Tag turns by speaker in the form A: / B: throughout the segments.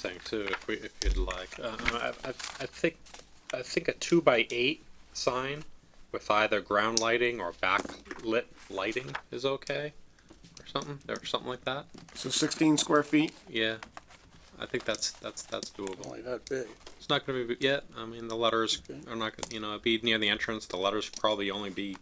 A: thing too, if we if you'd like. Uh, I, I, I think I think a two by eight sign with either ground lighting or backlit lighting is okay, or something or something like that.
B: So sixteen square feet?
A: Yeah, I think that's that's that's doable.
C: Only that big.
A: It's not going to be yeah. I mean, the letters are not gonna- you know it'd be near the entrance. The letters probably only be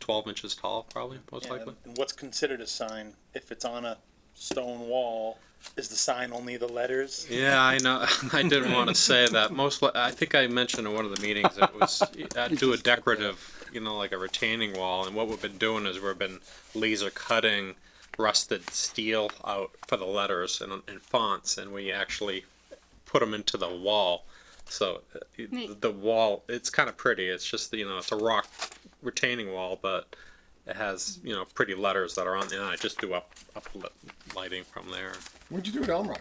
A: twelve inches tall, probably most
D: Yeah,
A: likely.
D: and What's considered a sign, if it's on a stone wall, is the sign only the letters?
A: Yeah, I know. I didn't want to say that. Most, li- I think I mentioned in one of the meetings it was I'd do a decorative, you know, like a retaining wall. And what we've been doing is we've been laser cutting rusted steel out for the letters and, and fonts, and we actually put them into the wall. So uh,
E: Neat.
A: the wall, it's kind of pretty. It's just you know, it's a rock retaining wall, but it has you know pretty letters that are on. And I just do up up lighting from there.
B: What'd you do at Elm Rock?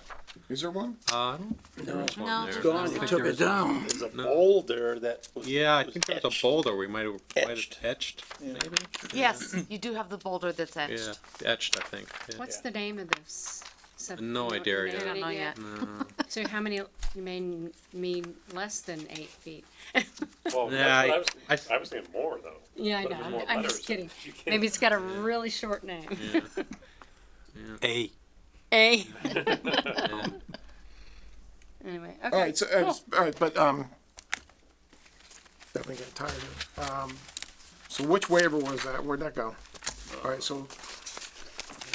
B: Is there one?
A: Uh, I don't think there was one
E: No.
A: there.
E: It's
C: Gone, you took it down.
D: There's a
A: No.
D: boulder that was.
A: Yeah, I
D: was
A: think there was
D: etched.
A: a boulder we might have might have
D: Etched.
A: etched, maybe?
F: Yes, you do have the boulder that's
A: Yeah,
F: etched.
A: etched, I think. yeah.
E: What's the name of this? sub-
A: No
E: you don't-
A: idea
E: you
A: yet.
F: I
E: know
F: don't know yet.
E: So how many, you mean, mean less than eight feet?
G: Well,
A: Yeah,
G: that's what I, was
A: I-
G: thinking. I was thinking more though.
E: Yeah, I
G: But
E: know,
G: there's more
E: I'm- I'm just kidding.
G: letters. You can't-
E: Maybe it's got a really short name.
C: A.
E: A. Anyway, okay.
B: All right, so, uh,
E: cool.
B: s- all right, but, um, definitely got tired of, it. um, so which waiver was that? Where'd that go? All right, so,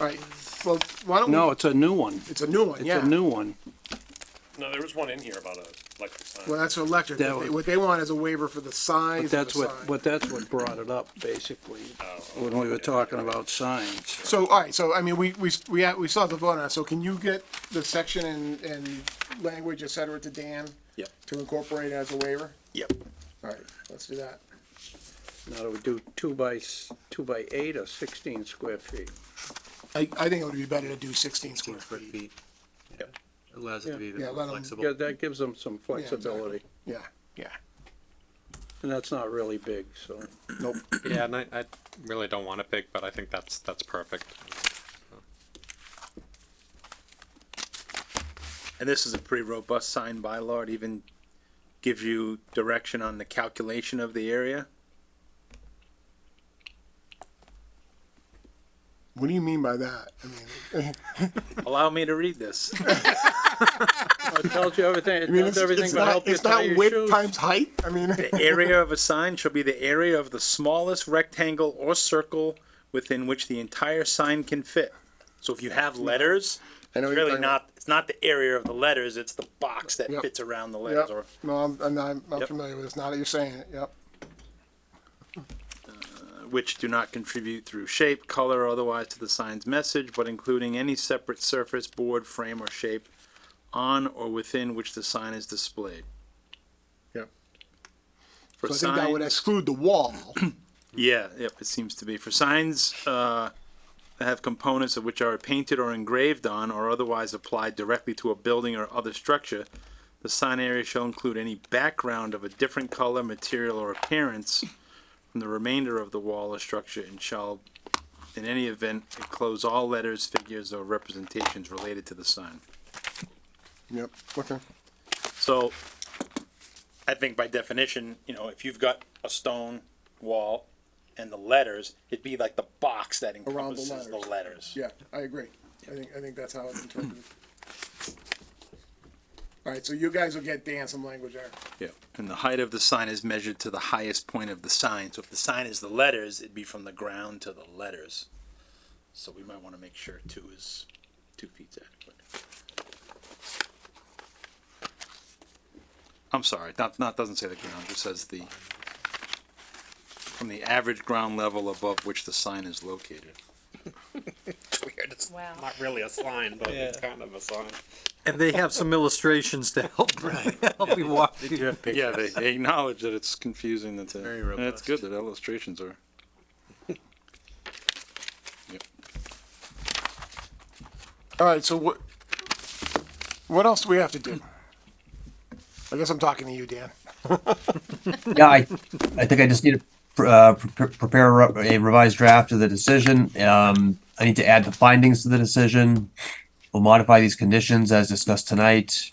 B: all right, well, why don't we?
C: No, it's a new one.
B: It's a new one,
C: It's
B: yeah.
C: a new one.
G: No, there was one in here about a electric sign.
B: Well, that's electric.
C: That
B: What they-
C: was-
B: What they want is a waiver for the size
C: But
B: of the
C: that's what,
B: sign.
C: but that's what brought it up, basically, when we were talking about signs.
B: So, all right, so, I mean, we, we, we, had- we saw the vote on it, so can you get the section and, and language, et cetera, to Dan?
C: Yep.
B: To incorporate as a waiver?
C: Yep.
B: All right, let's do that.
C: Now, do we do two by, s- two by eight or sixteen square feet?
B: I, I think it would be better to do sixteen square feet.
H: Allows it to be a
B: Yeah,
H: bit
B: let 'em-
H: more flexible.
C: Yeah, that gives them some
B: exactly.
C: flexibility,
B: Yeah, yeah.
C: and that's not really big, so.
B: Nope.
A: Yeah, and I, I really don't want to pick, but I think that's that's perfect.
I: And this is a pretty robust sign bylaw. It even gives you direction on the calculation of the area.
B: What do you mean by that? I mean,
I: Allow me to read this.
C: It tells you everything,
B: I
C: it
B: mean,
C: does
B: it's,
C: everything
B: it's
C: but help
B: not,
C: you
B: it's
C: tie
B: not
C: your
B: width
C: shoes.
B: times height. I mean,
I: The area of a sign shall be the area of the smallest rectangle or circle within which the entire sign can fit. So if you have letters,
B: I know what you're
I: it's really
B: talking about.
I: not, it's not the area of the letters, it's the box that
B: Yep.
I: fits around the letters
B: Yep.
I: or
B: No, I'm, I'm not, I'm
I: Yep.
B: familiar with this. Now that you're saying it, yep.
I: which do not contribute through shape, color, or otherwise to the sign's message, but including any separate surface, board, frame, or shape on or within which the sign is displayed.
B: Yep.
I: For
B: So I think that would
I: signs-
B: exclude the wall.
I: Yeah, yep, it seems to be. For signs uh, that have components of which are painted or engraved on or otherwise applied directly to a building or other structure, the sign area shall include any background of a different color, material, or appearance from the remainder of the wall or structure and shall, in any event, enclose all letters, figures, or representations related to the sign.
B: Yep, okay.
I: So, I think by definition, you know, if you've got a stone wall and the letters, it'd be like the box that
B: the
I: encompasses the
B: letters.
I: letters.
B: Yeah, I agree. I think, I think that's how it's interpreted. All right, so you guys will get Dan some language there.
I: Yeah. And the height of the sign is measured to the highest point of the sign. So if the sign is the letters, it'd be from the ground to the letters. So we might wanna make sure two is, two feet's adequate. I'm sorry, not, not, doesn't say the ground, it says the, from the average ground level above which the sign is located.
A: It's weird. It's
E: Wow.
A: not really a sign, but it's kind of a sign.
H: And they have some illustrations to help, help you walk through.
I: Yeah, they, they acknowledge that it's confusing. That's it.
H: Very
I: And it's
H: robust.
I: good that illustrations are. Yep.
B: All right, so what, what else do we have to do? I guess I'm talking to you, Dan.
J: Yeah, I, I think I just need to pr- uh, pre- prepare a re- a revised draft of the decision. Um, I need to add the findings to the decision. will modify these conditions as discussed tonight.